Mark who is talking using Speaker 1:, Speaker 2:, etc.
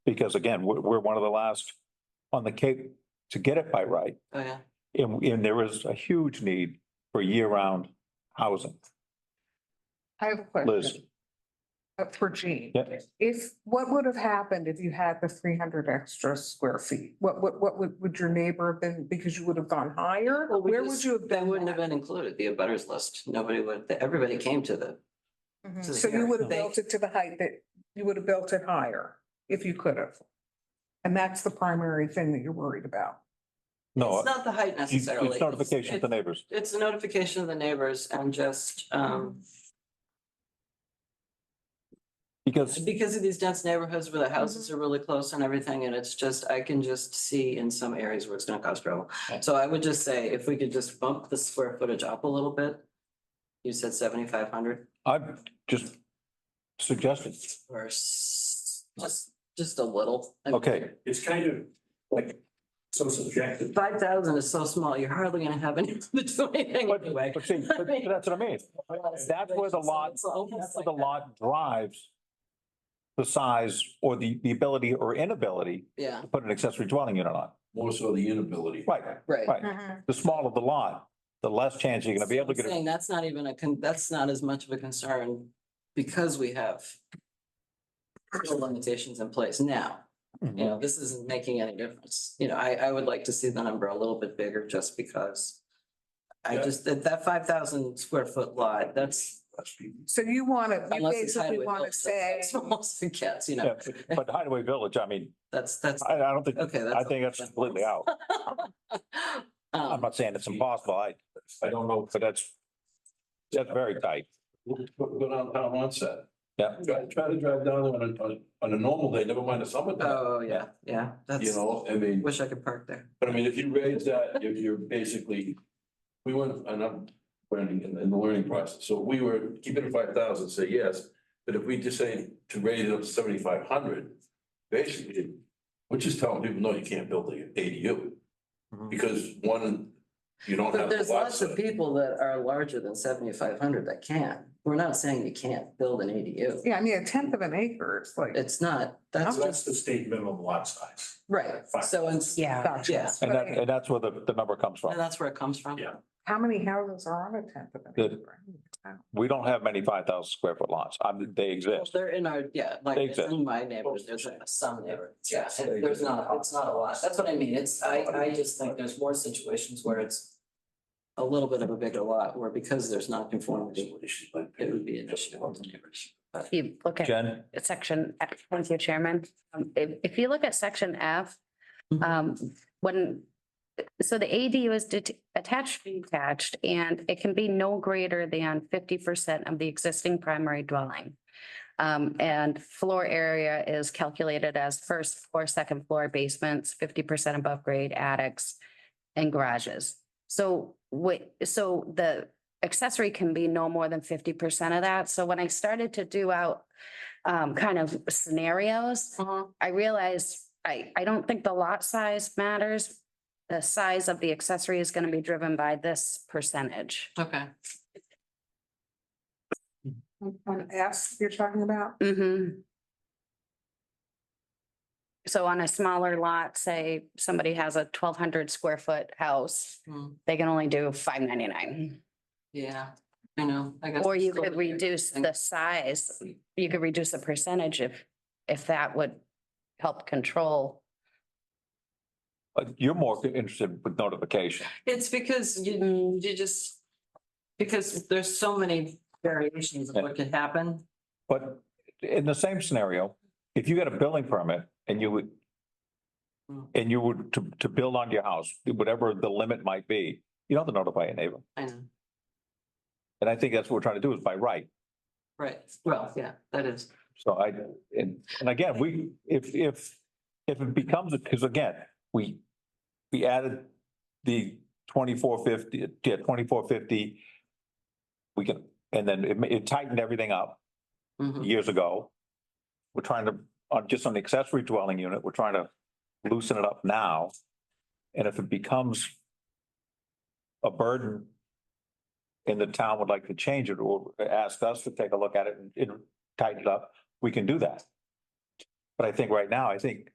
Speaker 1: Because again, we're, we're one of the last on the Cape to get it by right.
Speaker 2: Oh, yeah.
Speaker 1: And, and there is a huge need for year-round housing.
Speaker 3: I have a
Speaker 1: Liz,
Speaker 3: question uh, for Gene.
Speaker 1: Yeah.
Speaker 3: If, what would have happened if you had the three hundred extra square feet? What, what, what would, would your neighbor have been, because you would have gone higher?
Speaker 2: Well, we
Speaker 3: Where would
Speaker 2: just-
Speaker 3: you have
Speaker 2: They
Speaker 3: been?
Speaker 2: wouldn't have
Speaker 3: at?
Speaker 2: been included, the abutters list. Nobody would, everybody came to the,
Speaker 3: Mhm.
Speaker 2: to the
Speaker 3: So you
Speaker 2: area.
Speaker 3: would have
Speaker 2: They-
Speaker 3: built it to the height that, you would have built it higher if you could have. And that's the primary thing that you're worried about.
Speaker 1: no,
Speaker 2: it's not the height
Speaker 1: you- it's
Speaker 2: necessarily. It's-
Speaker 1: notification to
Speaker 2: it's-
Speaker 1: neighbors.
Speaker 2: It's a notification of the neighbors and just, um,
Speaker 1: Because,
Speaker 2: because of these dense neighborhoods where the houses are really close and everything, and it's just, I can just see in some areas where it's gonna cause trouble. So I would just say, if we could just bump the square footage up a little bit. You said seventy-five hundred
Speaker 1: I've just suggested,
Speaker 2: or s- just, just a little.
Speaker 1: okay,
Speaker 4: It's kind of like so subjective.
Speaker 2: Five thousand is so small, you're hardly gonna have any room to do anything
Speaker 1: But,
Speaker 2: anyway.
Speaker 1: but see, but that's what I mean. That's where the lot,
Speaker 2: It's almost
Speaker 1: that's where
Speaker 2: like
Speaker 1: the
Speaker 2: that.
Speaker 1: lot drives the size or the, the ability or inability
Speaker 2: Yeah,
Speaker 1: to put an accessory dwelling unit on.
Speaker 4: More so the inability.
Speaker 1: Right,
Speaker 2: right.
Speaker 1: right.
Speaker 3: Mm-hmm.
Speaker 1: The smaller the lot, the less chance you're gonna be able to get.
Speaker 2: I'm
Speaker 1: a-
Speaker 2: Saying that's not even a, con- that's not as much of a concern because we have the limitations in place now.
Speaker 1: Mm-hmm.
Speaker 2: You know, this isn't making any difference. You know, I, I would like to see the number a little bit bigger just because I
Speaker 4: Yeah.
Speaker 2: just, that, that five thousand square foot lot, that's
Speaker 4: That's people.
Speaker 3: So you want to, you
Speaker 2: unless it's
Speaker 3: basically
Speaker 2: highway.
Speaker 3: want to say,
Speaker 2: Almost cats, you
Speaker 1: Yeah,
Speaker 2: know,
Speaker 1: but- But Hideaway Village, I mean,
Speaker 2: that's, that's,
Speaker 1: I, I don't think,
Speaker 2: okay.
Speaker 1: I think that's completely out. I'm
Speaker 2: Um,
Speaker 1: not saying it's impossible. I, I don't know, but that's, that's very tight.
Speaker 4: Go go downtown onset.
Speaker 1: Yeah.
Speaker 4: Try try to drive down there on a, on a- on a normal day, never mind a summer day,
Speaker 2: oh, yeah, yeah,
Speaker 4: you
Speaker 2: that's,
Speaker 4: know, I mean,
Speaker 2: wish I could park there.
Speaker 4: but I mean, if you raise that, you're, you're basically, we went, and I'm learning in, in the learning process, so we were keeping it five thousand, say yes, but if we just say to raise it up to seventy-five hundred, basically, we're just telling people, no, you can't build the ADU, because one, you don't have.
Speaker 2: But
Speaker 4: the
Speaker 2: there's
Speaker 4: lot
Speaker 2: lots of
Speaker 4: size.
Speaker 2: people that are larger than seventy-five hundred that can't. We're not saying you can't build an ADU.
Speaker 3: yeah, I mean, a tenth of an acre is like.
Speaker 2: It's not, that's
Speaker 4: So That's
Speaker 2: just,
Speaker 4: the state minimum lot size.
Speaker 2: right, so, and,
Speaker 3: Yeah.
Speaker 2: yeah.
Speaker 3: Gotcha.
Speaker 1: And that,
Speaker 3: Right.
Speaker 1: and that's where the, the number comes
Speaker 2: and
Speaker 1: from.
Speaker 2: that's where it comes from.
Speaker 4: Yeah.
Speaker 3: How many houses are on a tenth of an
Speaker 1: Good.
Speaker 3: acre? Wow.
Speaker 1: We don't have many five thousand square foot lots. I'm, they
Speaker 2: Well,
Speaker 1: exist.
Speaker 2: They're in our, yeah, like, it's
Speaker 1: Exactly.
Speaker 2: in my neighborhood, there's some neighborhoods, yeah, and there's not, it's not a lot, that's what I mean, it's, I, I just think there's more situations where it's a little bit of a bigger lot, where because there's not conformity, it would be an issue with the neighbors. But
Speaker 5: If you look at
Speaker 1: Jen,
Speaker 5: section, F, thank you, Chairman. Um, If, if you look at section F,
Speaker 2: Mhm.
Speaker 5: um, when, so the ADU is det- attached, detached, and it can be no greater than fifty percent of the existing primary dwelling. Um, and floor area is calculated as first floor, second floor basements, fifty percent above grade attics and garages. So what, so the accessory can be no more than fifty percent of that. So when I started to do out um, kind of scenarios,
Speaker 3: Uh,
Speaker 5: I realized I, I don't think the lot size matters. The size of the accessory is going to be driven by this percentage.
Speaker 2: Okay.
Speaker 3: On S you're talking about?
Speaker 5: Mm-hmm. So on a smaller lot, say somebody has a twelve hundred square foot house,
Speaker 2: Hmm.
Speaker 5: they can only do five ninety-nine.
Speaker 2: Yeah, I know, I guess.
Speaker 5: Or you
Speaker 2: it's still
Speaker 5: could
Speaker 2: weird.
Speaker 5: reduce the size, you could reduce the percentage if, if that would help control.
Speaker 1: uh, you're more interested with notification.
Speaker 2: It's because you, you just, because there's so many variations of what could happen.
Speaker 1: But in the same scenario, if you got a building permit and you would
Speaker 2: Hmm.
Speaker 1: and you would to, to build on your house, whatever the limit might be, you don't have to notify your neighbor.
Speaker 2: I know,
Speaker 1: And I think that's what we're trying to do is by right.
Speaker 2: right, well, yeah, that is.
Speaker 1: So I, and, and again, we, if, if, if it becomes, because again, we, we added the twenty-four fifty, yeah, twenty-four fifty. We can, and then it, ma- it tightened everything up
Speaker 2: Mhm.
Speaker 1: years ago. We're trying to, on just on the accessory dwelling unit, we're trying to loosen it up now. And if it becomes a burden and the town would like to change it or ask us to take a look at it and- and tighten it up, we can do that. But I think right now, I think